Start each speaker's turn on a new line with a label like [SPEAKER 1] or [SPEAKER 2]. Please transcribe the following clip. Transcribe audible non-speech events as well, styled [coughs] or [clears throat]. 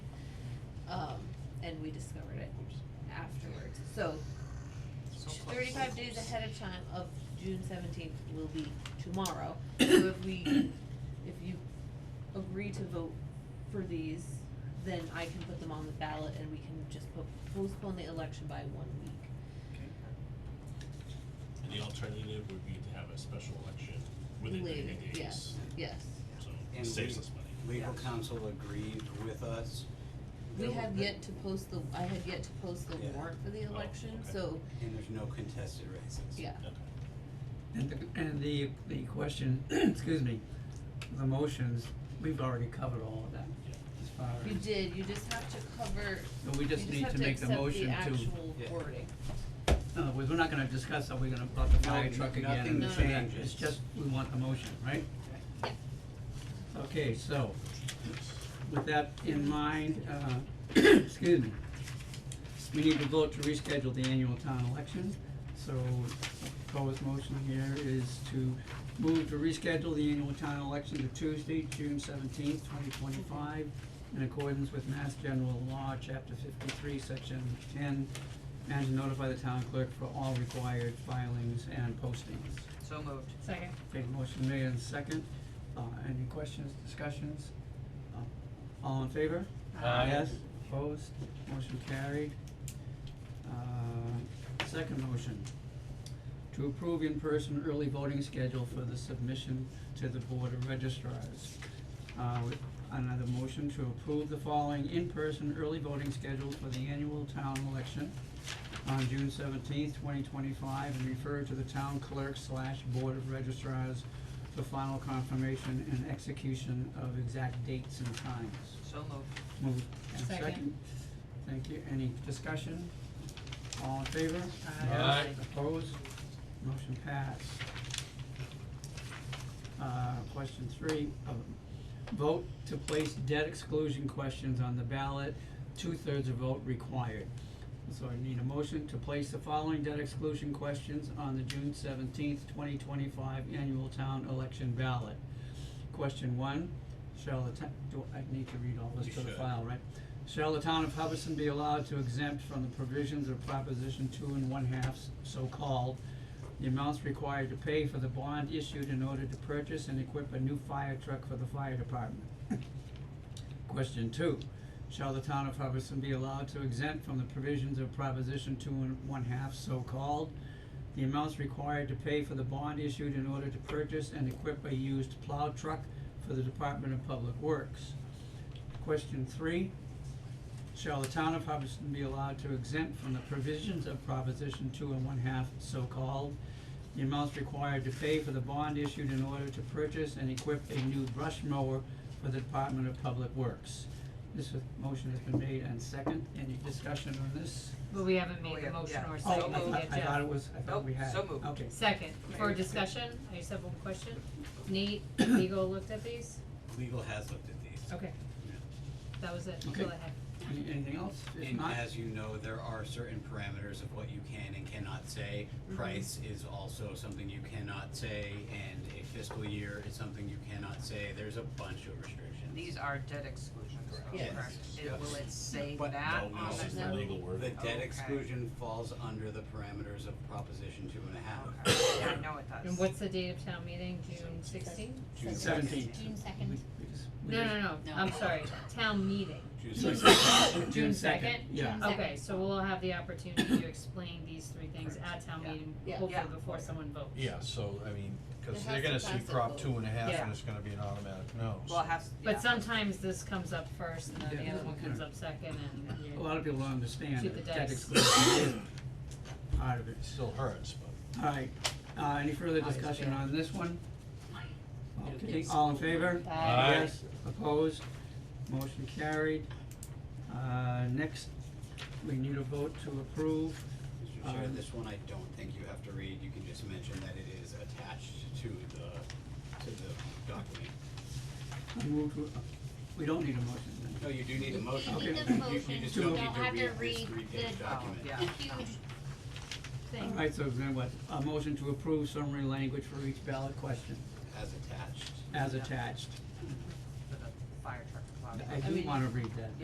[SPEAKER 1] Um, and we discovered it afterwards. So thirty-five days ahead of time of June seventeenth will be
[SPEAKER 2] [coughs]
[SPEAKER 1] tomorrow. So if we, if you agree to vote for these, then I can put them on the ballot and we can just po- postpone the election by one week.
[SPEAKER 2] And the alternative would be to have a special election within
[SPEAKER 1] Later,
[SPEAKER 2] ninety days.
[SPEAKER 1] yes, yes.
[SPEAKER 2] So
[SPEAKER 3] And
[SPEAKER 2] it saves
[SPEAKER 3] we-
[SPEAKER 2] us money.
[SPEAKER 3] Legal
[SPEAKER 1] Yes.
[SPEAKER 3] counsel agreed with us.
[SPEAKER 1] We
[SPEAKER 3] There
[SPEAKER 1] have
[SPEAKER 3] were-
[SPEAKER 1] yet to post the, I had yet to post the
[SPEAKER 3] Yeah.
[SPEAKER 1] warrant for the
[SPEAKER 2] Oh,
[SPEAKER 1] election,
[SPEAKER 2] okay.
[SPEAKER 1] so,
[SPEAKER 3] And there's no contested races.
[SPEAKER 1] yeah.
[SPEAKER 2] Okay.
[SPEAKER 4] And the, and the, the question, [clears throat] excuse me, the motions, we've already covered all of that
[SPEAKER 2] Yeah.
[SPEAKER 4] as far as.
[SPEAKER 1] You did, you just have to cover,
[SPEAKER 4] No, we
[SPEAKER 1] you
[SPEAKER 4] just
[SPEAKER 1] just
[SPEAKER 4] need
[SPEAKER 1] have
[SPEAKER 4] to
[SPEAKER 1] to
[SPEAKER 4] make the
[SPEAKER 1] accept the
[SPEAKER 4] motion to.
[SPEAKER 1] actual
[SPEAKER 3] Yeah.
[SPEAKER 1] wording.
[SPEAKER 4] In other words, we're not gonna discuss, are we gonna about the
[SPEAKER 3] No,
[SPEAKER 4] fire truck again?
[SPEAKER 3] nothing
[SPEAKER 4] and this and that.
[SPEAKER 3] changes.
[SPEAKER 4] It's just, we want the motion, right?
[SPEAKER 1] Yeah.
[SPEAKER 4] Okay, so, with that in mind, uh, [coughs] excuse me, we need to vote to reschedule the annual town election. So, proposed motion here is to move to reschedule the annual town election to Tuesday, June seventeenth, twenty twenty-five, in accordance with Mass General Law, Chapter fifty-three, Section ten, and to notify the town clerk for all required filings and postings.
[SPEAKER 5] So moved.
[SPEAKER 1] Second.
[SPEAKER 4] Okay, motion made and second. Uh, any questions, discussions? Uh, All in favor?
[SPEAKER 2] Aye.
[SPEAKER 4] Yes, opposed, motion carried. Uh, second motion, to approve in-person early voting schedule for the submission to the Board of registrars. Uh, with another motion to approve the following in-person early voting schedule for the annual town election on June seventeenth, twenty twenty-five, and refer to the town clerk slash board of registrars for final confirmation and execution of exact dates and times.
[SPEAKER 5] So moved.
[SPEAKER 4] Move, and
[SPEAKER 1] Second.
[SPEAKER 4] second. Thank you, any discussion? All in favor?
[SPEAKER 1] Aye. Aye.
[SPEAKER 4] Opposed? Motion passed. Uh, question three, uh, vote to place debt exclusion questions on the ballot, two-thirds of vote required. So I need a motion to place the following debt exclusion questions on the June seventeenth, twenty twenty-five annual town election ballot. Question one, shall the ta- do, I need to read all this
[SPEAKER 2] You
[SPEAKER 4] to the
[SPEAKER 2] should.
[SPEAKER 4] file, right? Shall the town of Hubbardson be allowed to exempt from the provisions of Proposition two and one-halves, so-called, the amounts required to pay for the bond issued in order to purchase and equip a new fire truck for the fire department? Question two, shall the town of Hubbardson be allowed to exempt from the provisions of Proposition two and one-half, so-called, the amounts required to pay for the bond issued in order to purchase and equip a used plow truck for the Department of Public Works? Question three, shall the town of Hubbardston be allowed to exempt from the provisions of Proposition two and one-half, so-called, the amounts required to pay for the bond issued in order to purchase and equip a new brush mower for the Department of Public Works? This was- motion has been made and second, any discussion on this?
[SPEAKER 6] But we haven't made
[SPEAKER 5] We
[SPEAKER 6] the
[SPEAKER 5] have-
[SPEAKER 6] motion
[SPEAKER 5] yeah.
[SPEAKER 6] or
[SPEAKER 5] So
[SPEAKER 4] Oh,
[SPEAKER 6] seconded
[SPEAKER 4] I
[SPEAKER 5] moved.
[SPEAKER 4] thought,
[SPEAKER 6] it
[SPEAKER 4] I
[SPEAKER 6] yet.
[SPEAKER 4] thought it was, I thought we
[SPEAKER 5] Nope,
[SPEAKER 4] had,
[SPEAKER 5] so moved.
[SPEAKER 4] okay,
[SPEAKER 6] Second, for
[SPEAKER 5] Very good.
[SPEAKER 6] discussion, I just have one
[SPEAKER 4] [coughs]
[SPEAKER 6] question. Nate, legal looked at these?
[SPEAKER 3] Legal has looked at these.
[SPEAKER 4] Oh,
[SPEAKER 6] Okay. That was it,
[SPEAKER 4] Okay.
[SPEAKER 6] go ahead.
[SPEAKER 4] Any- anything else? If
[SPEAKER 3] And
[SPEAKER 4] not-
[SPEAKER 3] as you know, there are certain parameters of what you can and cannot say.
[SPEAKER 1] Mm-hmm.
[SPEAKER 3] Price is also something you cannot say, and a fiscal year is something you cannot say. There's a bunch of restrictions.
[SPEAKER 5] These are debt exclusions, though,
[SPEAKER 3] Yes.
[SPEAKER 5] correct?
[SPEAKER 3] Yes.
[SPEAKER 5] It- Will it say
[SPEAKER 3] But-
[SPEAKER 5] that
[SPEAKER 2] No,
[SPEAKER 5] on
[SPEAKER 2] no, it's just
[SPEAKER 5] the?
[SPEAKER 2] a legal
[SPEAKER 3] The
[SPEAKER 2] word.
[SPEAKER 3] debt
[SPEAKER 5] Okay.
[SPEAKER 3] exclusion falls under the parameters of Proposition two and a half.
[SPEAKER 5] Oh, Okay, yeah, I know it does.
[SPEAKER 6] And what's the date of town meeting, June sixteenth?
[SPEAKER 3] June
[SPEAKER 4] Seventeen.
[SPEAKER 7] June
[SPEAKER 4] We-
[SPEAKER 7] second.
[SPEAKER 4] we just- we
[SPEAKER 6] No,
[SPEAKER 4] just-
[SPEAKER 6] no, no,
[SPEAKER 1] No.
[SPEAKER 6] I'm sorry, town meeting.
[SPEAKER 3] June
[SPEAKER 1] [laughs]
[SPEAKER 4] June
[SPEAKER 3] sixteenth.
[SPEAKER 4] June
[SPEAKER 6] June
[SPEAKER 4] second,
[SPEAKER 6] second?
[SPEAKER 5] Oh,
[SPEAKER 4] yeah.
[SPEAKER 6] Okay, so we'll have the opportunity to explain these three things at town
[SPEAKER 5] Yeah.
[SPEAKER 6] meeting,
[SPEAKER 1] Yeah.
[SPEAKER 6] hopefully
[SPEAKER 5] Yeah.
[SPEAKER 6] before someone votes.
[SPEAKER 8] Yeah, so, I mean,
[SPEAKER 1] It
[SPEAKER 8] cause
[SPEAKER 1] has
[SPEAKER 8] they're
[SPEAKER 1] to
[SPEAKER 8] gonna see
[SPEAKER 1] pass a
[SPEAKER 8] prop
[SPEAKER 1] vote.
[SPEAKER 8] two and a half
[SPEAKER 6] Yeah.
[SPEAKER 8] and it's gonna be an automatic no, so.
[SPEAKER 5] Well, it has, yeah.
[SPEAKER 6] But sometimes this comes up first and then
[SPEAKER 4] Yeah.
[SPEAKER 6] the other one comes up second and
[SPEAKER 4] A
[SPEAKER 6] you,
[SPEAKER 4] lot of people don't understand
[SPEAKER 6] Shoot the
[SPEAKER 4] that debt
[SPEAKER 6] dice.
[SPEAKER 4] exclusion is part of it.
[SPEAKER 8] It still hurts, but.
[SPEAKER 4] Alright, uh, any further
[SPEAKER 1] Oh, it's
[SPEAKER 4] discussion
[SPEAKER 1] bad.
[SPEAKER 4] on this one?
[SPEAKER 1] It'll
[SPEAKER 4] Okay,
[SPEAKER 1] get
[SPEAKER 4] all in favor?
[SPEAKER 6] Aye.
[SPEAKER 4] Yes, opposed, motion carried. Uh, next, we need a vote to approve,
[SPEAKER 3] Mr. Chair,
[SPEAKER 4] Um,
[SPEAKER 3] this one I don't think you have to read, you can just mention that it is attached to the, to the document.
[SPEAKER 4] I move to, we don't need a motion then.
[SPEAKER 3] No, you do need a motion.
[SPEAKER 4] Okay.
[SPEAKER 7] Need
[SPEAKER 4] You-
[SPEAKER 7] the
[SPEAKER 3] You-
[SPEAKER 7] motion,
[SPEAKER 3] You just
[SPEAKER 4] To-
[SPEAKER 7] you
[SPEAKER 3] don't
[SPEAKER 7] don't have
[SPEAKER 3] need
[SPEAKER 7] to
[SPEAKER 3] to read this
[SPEAKER 7] read
[SPEAKER 3] three-page
[SPEAKER 7] the
[SPEAKER 3] document.
[SPEAKER 5] Oh, yeah.
[SPEAKER 7] huge thing.
[SPEAKER 4] Alright, so then what, a motion to approve summary language for each ballot question
[SPEAKER 7] Oh,
[SPEAKER 3] As attached.
[SPEAKER 4] as
[SPEAKER 5] Yeah.
[SPEAKER 4] attached.
[SPEAKER 5] For the fire truck.
[SPEAKER 4] I
[SPEAKER 1] I
[SPEAKER 4] do
[SPEAKER 1] mean-
[SPEAKER 4] wanna read that.